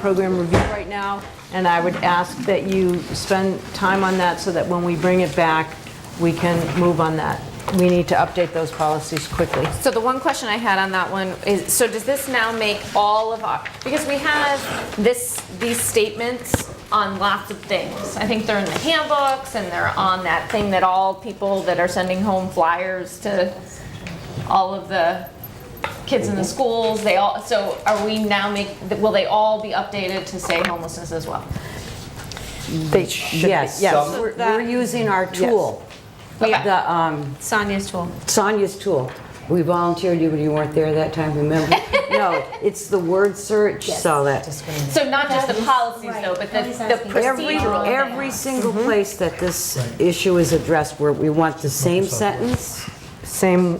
program review right now, and I would ask that you spend time on that so that when we bring it back, we can move on that. We need to update those policies quickly. So the one question I had on that one is, so does this now make all of our, because we have this, these statements on lots of things. I think they're in the handbooks and they're on that thing that all people that are sending home flyers to all of the kids in the schools, they all, so are we now make, will they all be updated to say homelessness as well? They should Yes, Yes. we're we're using our tool, Okay. the um, Sonia's tool. Sonia's tool. We volunteered you, but you weren't there that time, remember? No, it's the word search, so that, So not just the policies though, but the the every, procedural. every single place that this issue is addressed, where we want the same sentence, Same,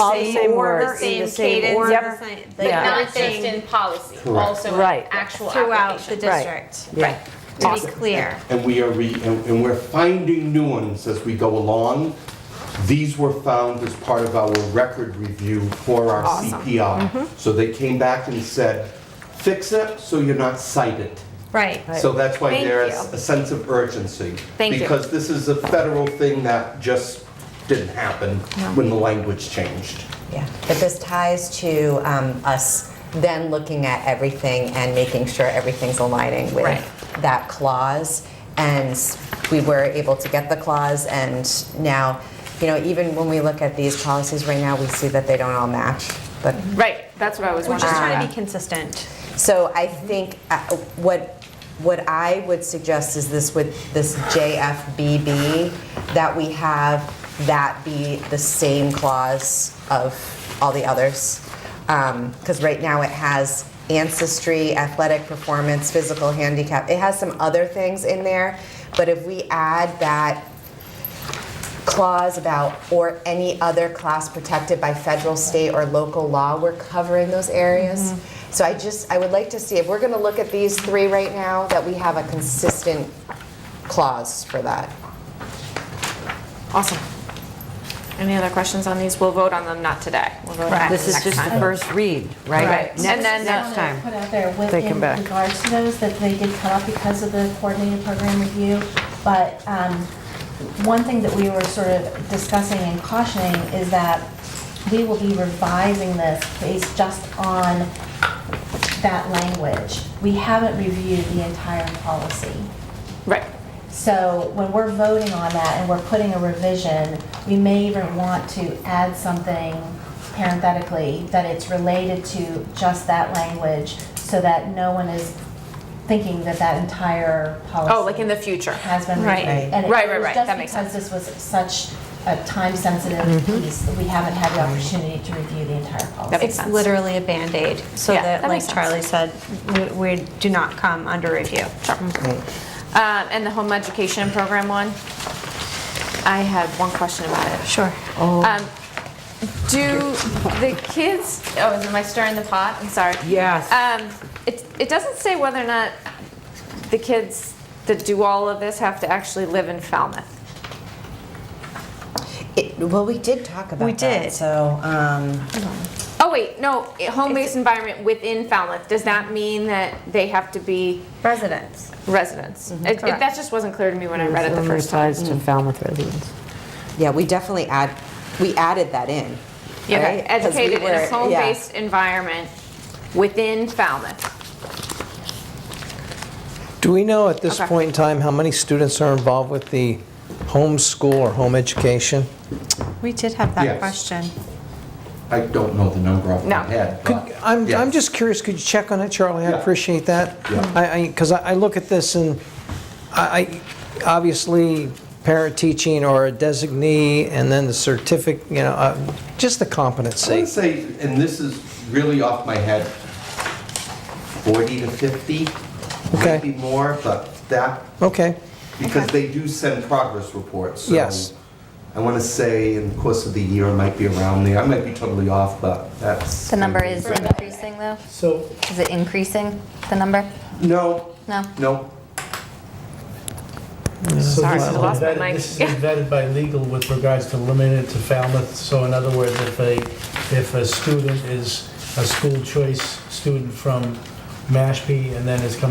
all the same order, words. in the same cadence, same order. the same- But like not just everything in policy, also in Right. actual throughout the application. district, Yeah. to be clear. and we are, re- and and we're finding new ones as we go along. These were found as part of our record review for our CPR. Mm-hmm. So they came back and said, fix it so you're not cited. Right. So that's why Thank there's you. a sense of urgency. Thank you. Because this is a federal thing that just didn't happen when the language changed. Yeah, but this ties to um, us then looking at everything and making sure everything's aligning with Right. that clause. And we were able to get the clause, and now, you know, even when we look at these policies right now, we see that they don't all match. But Right, that's what I was We're wondering. just trying to be consistent. so I think uh, what what I would suggest is this with this JFBB that we have that be the same clause of all the others because right now it has ancestry, athletic performance, physical handicap. It has some other things in there, but if we add that clause about or any other class protected by federal, state, or local law, we're covering those areas. So I just, I would like to see, if we're gonna look at these three right now, that we have a consistent clause for that. Awesome. Any other questions on these? We'll vote on them, not today. We'll vote on them This is next just time. the first read, right? Right. Next- And then- Next time. Put out there They come within back. regards to those, that they did cut off because of the coordinated program review. But um, one thing that we were sort of discussing and cautioning is that we will be revising this based just on that language. We haven't reviewed the entire policy. Right, So when we're voting on that and we're putting a revision, we may even want to add something parenthetically that it's related to just that language so that no one is thinking that that entire policy. Oh, like in the future. Has been Right. reviewed. And it Right, right, was right. That makes sense. Just because this was such a time-sensitive piece, we haven't had the opportunity to review the entire That policy. makes Mm-hmm. It's sense. literally a Band-Aid, so Yeah, that, that like makes sense. Charlie said, we- we do not come under review. sure. Um, And the home education program one? I had one question about it. Sure. Um, Do the kids, oh, am I stirring the pot? I'm sorry. Yes. Um, It it doesn't say whether or not the kids that do all of this have to actually live in Falmouth. It- Well, we did talk about that. We did. So, um, Oh, wait, no, home-based environment within Falmouth, does that mean that they have to be Residents. residents? Mm-hmm, It- it- That Correct. just wasn't clear to me when I read it the Only first time. applies to Falmouth residents. yeah, we definitely add, we added that in, Okay, right? 'Cause we Educated in were- a yeah. home-based environment within Falmouth. Do we know at this Okay. point in time how many students are involved with the homeschool or home education? We did have that Yes. question. I don't know the number off No. my head. Could, but- I'm, I'm Yes. just curious, could you check on it, Charlie? I Yeah. appreciate that. Yeah. I, I, because I I look at this and I, I- obviously, parent teaching or a designee and then the certificate, you know, uh, just the I competency. would say, and this is really off my head, 40 to 50, Okay. maybe more, but that, Okay, because they do send progress reports. so Yes. I want to say in the course of the year, it might be around there. I might be totally off, but that's. The number is increasing, though? so Is it increasing, the number? No, No? no. So Sorry, this I is lost my vetted- mic. This is Yeah. vetted by legal with regards to limited to Falmouth. So in other words, if a, if a student is a school choice student from Mashpee, and then is coming